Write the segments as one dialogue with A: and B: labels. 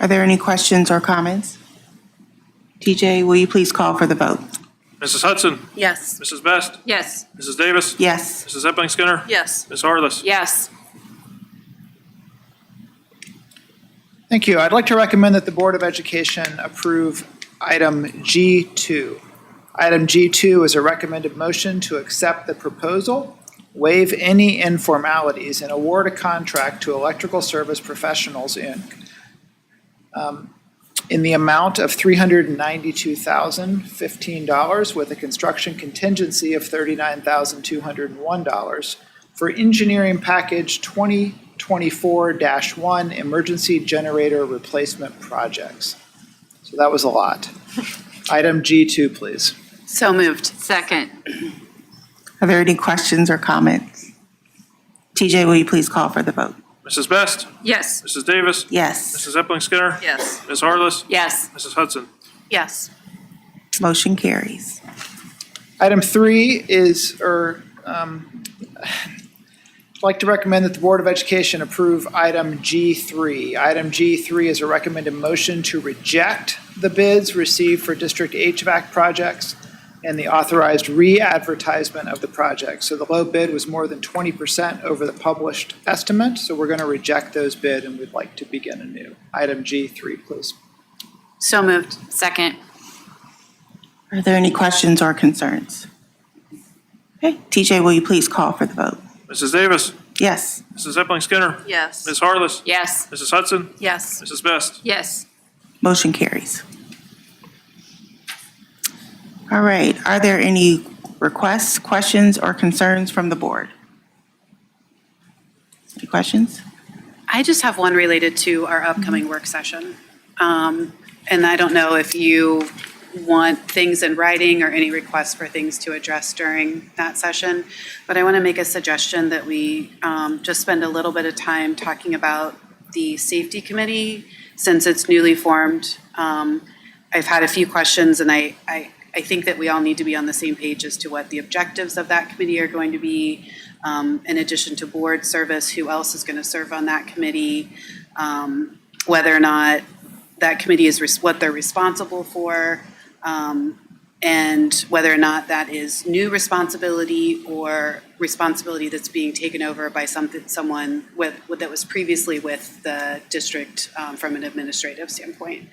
A: Are there any questions or comments? TJ, will you please call for the vote?
B: Mrs. Hudson,
C: Yes.
B: Mrs. Best,
C: Yes.
B: Mrs. Davis,
A: Yes.
B: Mrs. Epling Skinner,
C: Yes.
B: Ms. Harless.
C: Yes.
D: Thank you. I'd like to recommend that the Board of Education approve item G2. Item G2 is a recommended motion to accept the proposal, waive any informalities, and award a contract to Electrical Service Professionals, Inc. um, in the amount of $392,015 with a construction contingency of $39,201 for engineering package 2024-1 emergency generator replacement projects. So that was a lot. Item G2, please.
C: So moved. Second.
A: Are there any questions or comments? TJ, will you please call for the vote?
B: Mrs. Best,
C: Yes.
B: Mrs. Davis,
A: Yes.
B: Mrs. Epling Skinner,
C: Yes.
B: Ms. Harless,
C: Yes.
B: Mrs. Hudson.
C: Yes.
A: Motion carries.
D: Item three is, or, um, I'd like to recommend that the Board of Education approve item G3. Item G3 is a recommended motion to reject the bids received for district HVAC projects and the authorized re-advertisement of the project. So the low bid was more than 20% over the published estimate, so we're going to reject those bid and we'd like to begin anew. Item G3, please.
C: So moved. Second.
A: Are there any questions or concerns? Okay, TJ, will you please call for the vote?
B: Mrs. Davis,
A: Yes.
B: Mrs. Epling Skinner,
C: Yes.
B: Ms. Harless,
C: Yes.
B: Mrs. Hudson,
C: Yes.
B: Mrs. Best.
C: Yes.
A: Motion carries. All right, are there any requests, questions, or concerns from the board? Any questions?
E: I just have one related to our upcoming work session. Um, And I don't know if you want things in writing or any requests for things to address during that session, but I want to make a suggestion that we um, just spend a little bit of time talking about the safety committee, since it's newly formed. Um, I've had a few questions, and I, I, I think that we all need to be on the same page as to what the objectives of that committee are going to be. Um, in addition to board service, who else is gonna serve on that committee? Um, whether or not that committee is, res- what they're responsible for, um, and whether or not that is new responsibility or responsibility that's being taken over by something, someone with, that was previously with the district, um, from an administrative standpoint.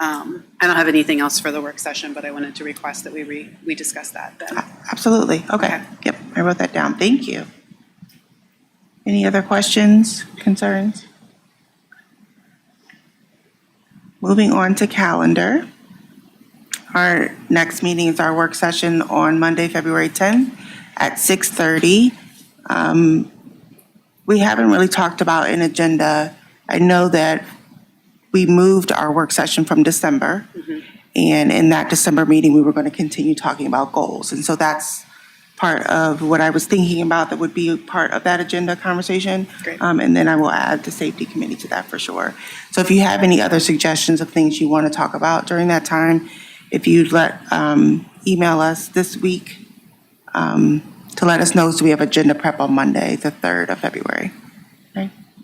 E: Um, I don't have anything else for the work session, but I wanted to request that we re, we discuss that then.
A: Absolutely, okay. Yep, I wrote that down, thank you. Any other questions, concerns? Moving on to calendar. Our next meeting is our work session on Monday, February 10th at 6:30. Um, We haven't really talked about an agenda. I know that we moved our work session from December.
E: Mm-hmm.
A: And in that December meeting, we were going to continue talking about goals. And so that's part of what I was thinking about that would be part of that agenda conversation.
E: Great.
A: Um, And then I will add the safety committee to that for sure. So if you have any other suggestions of things you want to talk about during that time, if you'd let, um, email us this week um, to let us know so we have agenda prep on Monday, the 3rd of February.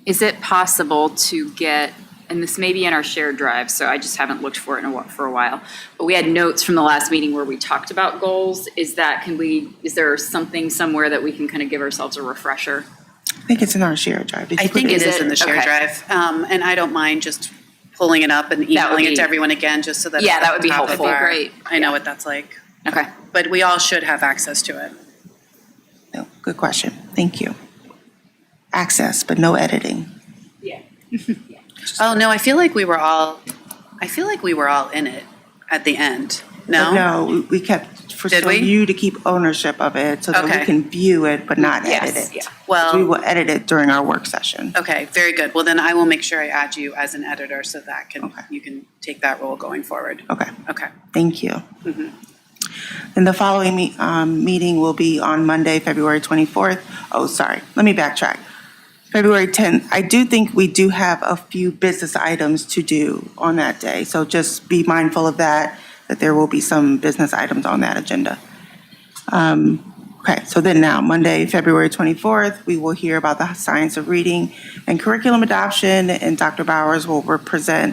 F: Is it possible to get, and this may be in our shared drive, so I just haven't looked for it in a, wh- for a while, but we had notes from the last meeting where we talked about goals. Is that, can we, is there something somewhere that we can kind of give ourselves a refresher?
A: I think it's in our shared drive. Did you
E: I
A: put
E: think
A: it
E: it
A: in?
E: is in the shared
F: Okay.
E: drive, um, and I don't mind just pulling it up and emailing it
F: be-
E: to everyone again, just so that. it's
F: Yeah,
E: at
F: that would
E: the
F: be
E: top of
F: helpful.
E: our-
F: Great.
E: I know what that's like,
F: Okay.
E: but we all should have access to it.
A: No, Good question. Thank you. Access, but no editing.
F: Yeah.
E: Oh, no, I feel like we were all, I feel like we were all in it at the end,
A: But
E: no?
A: No, we- we kept, for
E: Did
A: so
E: we?
A: you to keep ownership of it so that we
E: Okay.
A: can view it but not edit it.
F: yeah.
A: We
E: Well,
A: will edit it during our work session.
E: okay, very good. Well, then I will make sure I add you as an editor so that can,
A: Okay.
E: you can take that role going forward.
A: Okay.
E: Okay.
A: Thank you. And the following me- um, meeting will be on Monday, February 24th. Oh, sorry, let me backtrack. February 10th. I do think we do have a few business items to do on that day, so just be mindful of that, that there will be some business items on that agenda. Um, Okay, so then now, Monday, February 24th, we will hear about the science of reading and curriculum adoption, and Dr. Bowers will present